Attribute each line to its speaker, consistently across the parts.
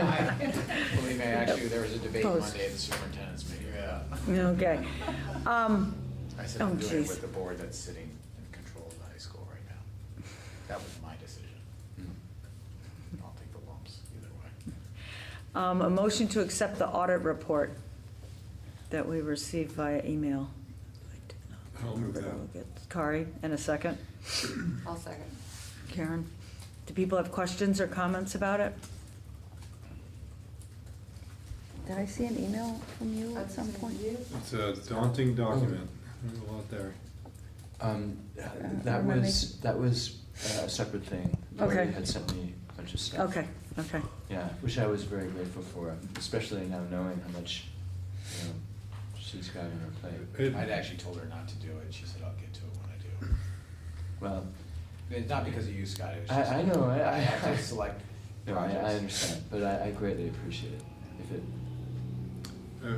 Speaker 1: Believe me, actually, there was a debate
Speaker 2: Post.
Speaker 1: Monday at the superintendent's meeting. Yeah.
Speaker 2: Okay. Um,
Speaker 1: I said
Speaker 2: Oh,
Speaker 1: I'm doing it
Speaker 2: jeez.
Speaker 1: with the board that's sitting in control of the high school right now. That was my decision.
Speaker 3: Hmm.
Speaker 1: I'll take the lumps either way.
Speaker 2: um, A motion to accept the audit report that we received via email.
Speaker 4: I'll move that.
Speaker 2: Kari, and a second.
Speaker 5: I'll second.
Speaker 2: Karen, do people have questions or comments about it?
Speaker 6: Did I see an email from you at some point?
Speaker 4: It's a daunting document. There's a lot there.
Speaker 3: Um,
Speaker 2: Uh,
Speaker 3: that
Speaker 6: remember
Speaker 3: was, that was uh, a separate thing. Lori
Speaker 2: Okay.
Speaker 3: had sent me a bunch of stuff.
Speaker 2: Okay, okay.
Speaker 3: Yeah, which I was very grateful for, especially now knowing how much, you know, she's got on her plate.
Speaker 4: It-
Speaker 1: I'd actually told her not to do it. She said, I'll get to it when I do.
Speaker 3: Well,
Speaker 1: It's not because of you, Scott. It was
Speaker 3: I-
Speaker 1: just-
Speaker 3: I know, I- I-
Speaker 1: have to select
Speaker 3: no, I, I
Speaker 1: projects.
Speaker 3: understand, but I, I greatly appreciate it if it,
Speaker 4: Uh,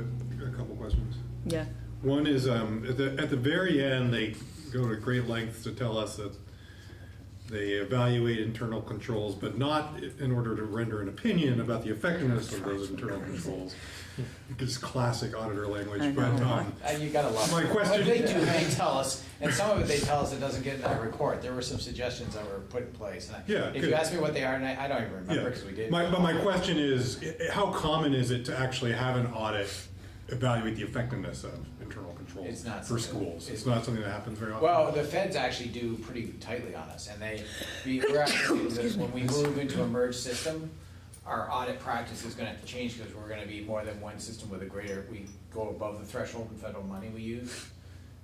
Speaker 4: A couple questions.
Speaker 2: Yeah,
Speaker 4: One is, um, at the, at the very end, they go to great lengths to tell us that they evaluate internal controls, but not in order to render an opinion about the effectiveness of those internal controls. It's classic auditor
Speaker 2: I
Speaker 4: language, but,
Speaker 2: know.
Speaker 4: um,
Speaker 1: Uh, you gotta love.
Speaker 4: My
Speaker 1: it. What
Speaker 4: question-
Speaker 1: they do, they tell us, and some of it they tell us it doesn't get in our report. There were some suggestions that were put in place. and I-
Speaker 4: Yeah,
Speaker 1: If you
Speaker 4: good.
Speaker 1: ask me what they are, and I, I don't even
Speaker 4: yeah.
Speaker 1: remember, because we did.
Speaker 4: My, but my question is, i- i- how common is it to actually have an audit evaluate the effectiveness of internal
Speaker 1: It's
Speaker 4: controls
Speaker 1: not
Speaker 4: for
Speaker 1: something-
Speaker 4: schools?
Speaker 1: it's-
Speaker 4: It's not something that happens very often.
Speaker 1: Well, the feds actually do pretty tightly on us, and they, we- we're actually, when we move into a merged system, our audit practice is gonna have to change, because we're gonna be more than one system with a greater, we go above the threshold in federal money we use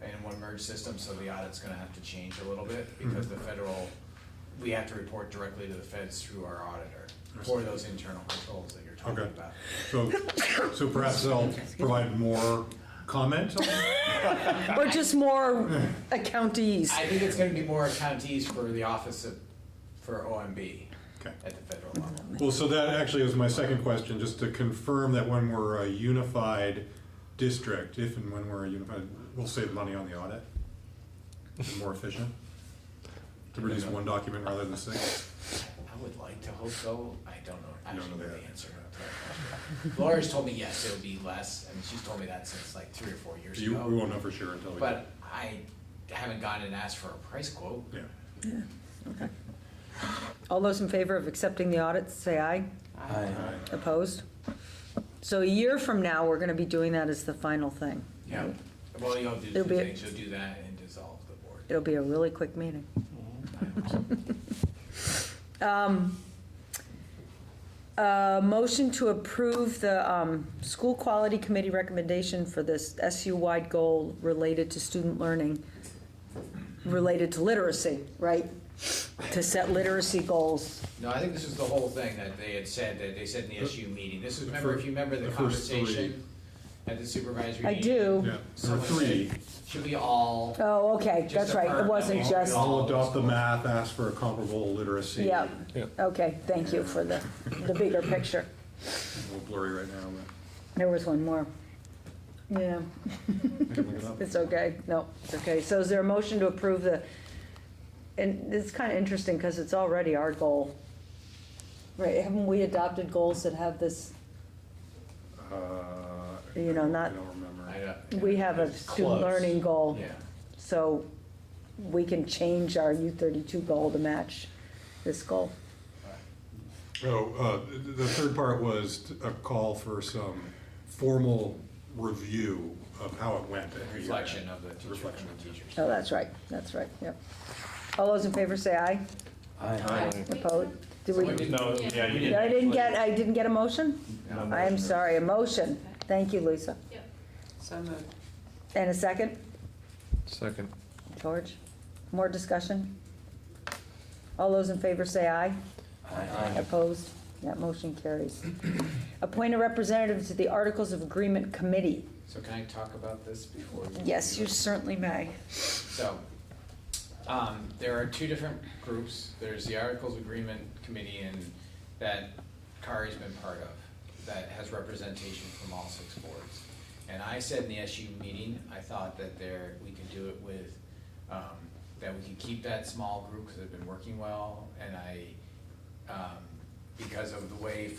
Speaker 1: in one merged system, so the audit's gonna have to change a little bit, because the federal, we have to report directly to the feds through our auditor for those internal controls that you're talking
Speaker 4: Okay.
Speaker 1: about.
Speaker 4: So, so perhaps they'll provide more comment on
Speaker 2: or just more accountees.
Speaker 1: I think it's gonna be more counties for the office of, for OMB
Speaker 4: Okay.
Speaker 1: at the federal level.
Speaker 4: Well, so that actually was my second question, just to confirm that when we're a unified district, if and when we're a unified, we'll save money on the audit? Be More efficient? To produce one document rather than six?
Speaker 1: I would like to hope so. I don't know, I
Speaker 4: don't
Speaker 1: don't know
Speaker 4: know
Speaker 1: the
Speaker 4: that.
Speaker 1: answer to that question. Laura's told me yes, it'll be less, I mean, she's told me that since like three or four years
Speaker 4: You, we
Speaker 1: ago.
Speaker 4: won't know for sure until we.
Speaker 1: But I haven't gone and asked for a price quote.
Speaker 4: Yeah.
Speaker 2: All those in favor of accepting the audit, say aye.
Speaker 3: I,
Speaker 2: Opposed? So a year from now, we're gonna be doing that as the final thing.
Speaker 1: Yeah. Well, you'll do two
Speaker 2: It'll be-
Speaker 1: things, you'll do that and dissolve the board.
Speaker 2: It'll be a really quick meeting. Um, uh, Motion to approve the um, School Quality Committee recommendation for this SU-wide goal related to student learning, related to literacy, right? To set literacy goals.
Speaker 1: No, I think this is the whole thing that they had said, that they said in the SU meeting. This is, remember, if you remember the
Speaker 4: The first three.
Speaker 1: conversation at the supervisory
Speaker 2: I
Speaker 1: meeting?
Speaker 2: do.
Speaker 4: Yeah, there were
Speaker 1: Someone
Speaker 4: three.
Speaker 1: said, should we all?
Speaker 2: Oh, okay,
Speaker 1: Just
Speaker 2: that's right, it
Speaker 1: affirm.
Speaker 2: wasn't
Speaker 1: Yeah.
Speaker 2: just,
Speaker 4: I'll adopt the math, ask for a comparable literacy.
Speaker 2: yeah. Okay, thank you for the, the bigger picture.
Speaker 4: A little blurry right now,
Speaker 2: There was one more. Yeah.
Speaker 4: but I can look it up.
Speaker 2: It's okay, no, it's okay. So is there a motion to approve the, and it's kind of interesting because it's already our goal. Right, haven't we adopted goals that have this,
Speaker 4: Uh,
Speaker 2: You know, not-
Speaker 4: I don't remember.
Speaker 1: I uh, don't-
Speaker 2: we have a
Speaker 1: It's
Speaker 2: student
Speaker 1: close.
Speaker 2: learning goal.
Speaker 1: Yeah.
Speaker 2: So we can change our U thirty-two goal to match this goal.
Speaker 4: Oh, uh, th- the third part was t- a call for some formal review of how it went. at the
Speaker 1: Reflection
Speaker 4: event.
Speaker 1: of the teacher,
Speaker 4: Reflection.
Speaker 1: from the teachers.
Speaker 2: Oh, that's right, that's right, yep. All those in favor say aye.
Speaker 3: I,
Speaker 2: Opposed? Did we,
Speaker 1: Someone did-
Speaker 7: No, yeah, you didn't.
Speaker 2: I didn't get, I didn't get a motion?
Speaker 7: No.
Speaker 2: I am sorry, a motion. Thank you, Lisa.
Speaker 5: So moved.
Speaker 2: And a second?
Speaker 7: Second.
Speaker 2: George, more discussion? All those in favor say aye.
Speaker 3: I,
Speaker 2: Opposed? That motion carries. Appoint a representative to the Articles of Agreement Committee.
Speaker 1: So can I talk about this before? we-
Speaker 2: Yes, you certainly may.
Speaker 1: So, um, there are two different groups. There's the Articles Agreement Committee and that Kari's been part of, that has representation from all six boards. And I said in the SU meeting, I thought that there, we could do it with, um, that we could keep that small group because it's been working well. And I, um, because of the way